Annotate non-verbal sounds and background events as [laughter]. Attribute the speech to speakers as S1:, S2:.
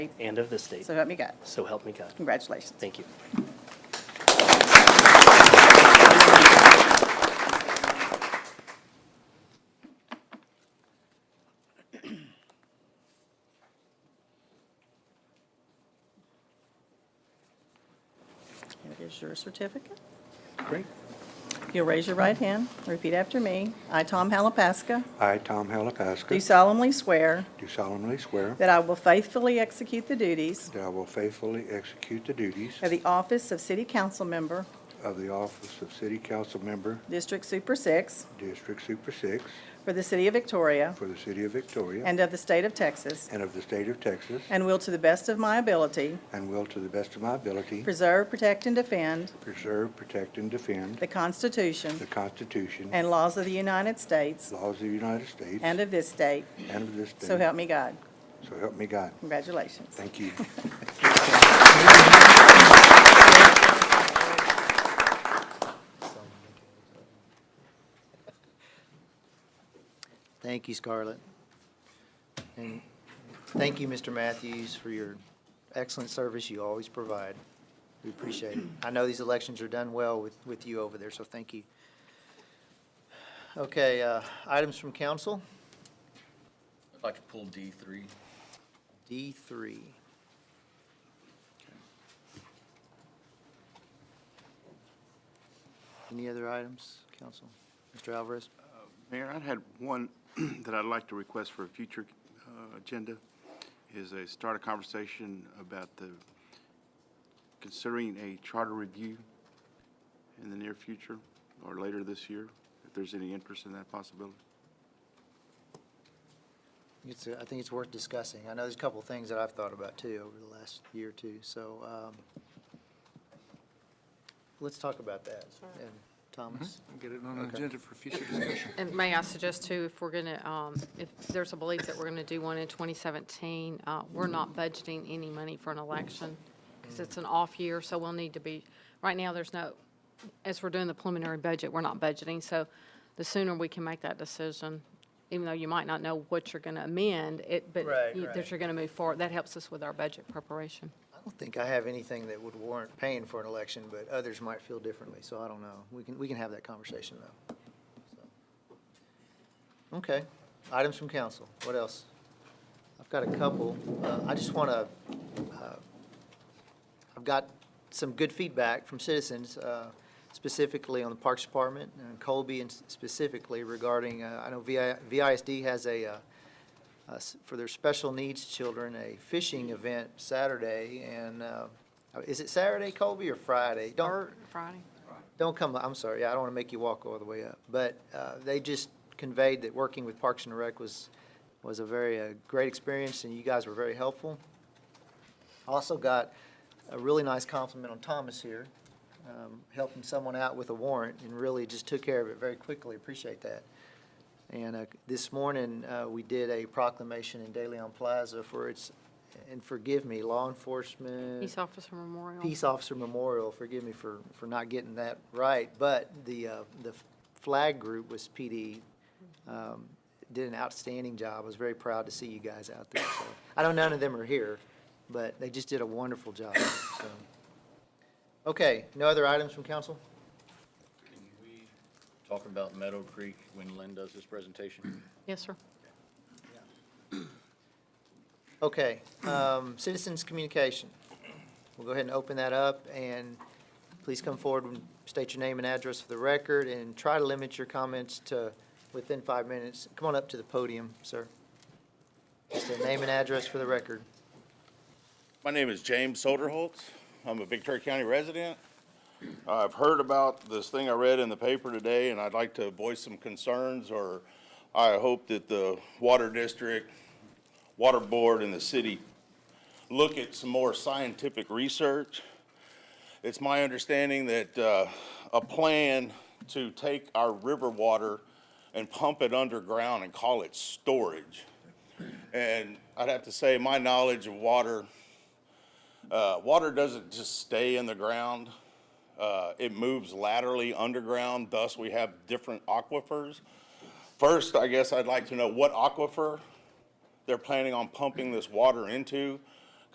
S1: and of this state.
S2: So help me God.
S1: So help me God.
S2: Congratulations.
S1: Thank you.
S2: Here is your certificate.
S3: Great.
S2: You'll raise your right hand, repeat after me. I, Tom Halapaska,
S3: I, Tom
S2: do
S3: Halapaska,
S2: solemnly swear
S3: do solemnly swear
S2: that I will faithfully execute the duties
S3: that I will faithfully execute the duties
S2: of the office of City Council Member,
S3: of the office of City Council Member,
S2: District Super Six,
S3: District Super Six,
S2: for the City of Victoria
S3: for the City of Victoria
S2: and of the State of Texas,
S3: and of the State of Texas,
S2: and will, to the best of my ability,
S3: and will to the best of my ability
S2: preserve, protect, and defend
S3: preserve, protect, and defend
S2: the Constitution
S3: the Constitution,
S2: and laws of the United States
S3: laws of the United States,
S2: and
S3: and
S2: of this state.
S3: of this state.
S2: So help me God.
S3: So help me God.
S2: Congratulations.
S3: Thank you.
S4: Thank you, Scarlett. And thank you, Mr. Matthews, for your excellent service you always provide. We appreciate it. I know these elections are done well with, with you over there, so thank you. Okay, uh, items from council,
S5: I'd like to pull D three.
S4: D three. Any other items, council? Mr. Alvarez?
S6: Mayor, I had one [clears throat] that I'd like to request for a future uh, agenda, is a start a conversation about the, considering a charter review in the near future or later this year, if there's any interest in that possibility.
S4: It's, uh, I think it's worth discussing. I know there's a couple of things that I've thought about too over the last year or two, so, um, let's talk about that. And Thomas,
S7: Mm-hmm. Get it on an
S4: Okay.
S7: agenda for future discussion.
S8: And may I suggest too, if we're going to, if there's a belief that we're going to do one in 2017, uh, we're not budgeting any money for an election because it's an off year, so we'll need to be, right now, there's no, as we're doing the preliminary budget, we're not budgeting. So the sooner we can make that decision, even though you might not know what you're going to amend, it, but
S4: Right,
S8: you-
S4: right.
S8: that you're going to move forward, that helps us with our budget preparation.
S4: I don't think I have anything that would warrant paying for an election, but others might feel differently, so I don't know. We can, we can have that conversation though. So. Okay, items from council. What else? I've got a couple. Uh, I just want to, I've got some good feedback from citizens, uh, specifically on the Parks Department and Colby and specifically regarding, uh, I know VI VISD has a, uh, uh, s- for their special needs children, a fishing event Saturday. And uh, is it Saturday, Colby, or Friday? Don't,
S8: Friday?
S4: don't come, I'm sorry, yeah, I don't want to make you walk all the way up. But uh, they just conveyed that working with Parks and Rec was, was a very, uh great experience, and you guys were very helpful. Also got a really nice compliment on Thomas here, um, helping someone out with a warrant, and really just took care of it very quickly, appreciate that. And uh, this morning, uh, we did a proclamation in De Leon Plaza for its, and forgive me, law enforcement.
S8: Peace Officer Memorial.
S4: Peace Officer Memorial, forgive me for, for not getting that right, but the, uh, the flag group was PD, um, did an outstanding job. I was very proud to see you guys out there, so. I know none of them are here, but they just did a wonderful job, so. Okay, no other items from council?
S5: Can we talk about Meadow Creek when Lynn does this presentation?
S8: Yes, sir.
S4: Okay, um, citizens' communication. We'll go ahead and open that up, and please come forward and state your name and address for the record, and try to limit your comments to within five minutes. Come on up to the podium, sir. Just a name and address for the record.
S9: My name is James Soderholtz. I'm a Big Turk County resident. I've heard about this thing I read in the paper today, and I'd like to voice some concerns, or I hope that the Water District, Water Board, and the city look at some more scientific research. It's my understanding that uh, a plan to take our river water and pump it underground and call it storage. And I'd have to say, my knowledge of water uh, water doesn't just stay in the ground. Uh, it moves laterally underground, thus we have different aquifers. First, I guess I'd like to know what aquifer they're planning on pumping this water into.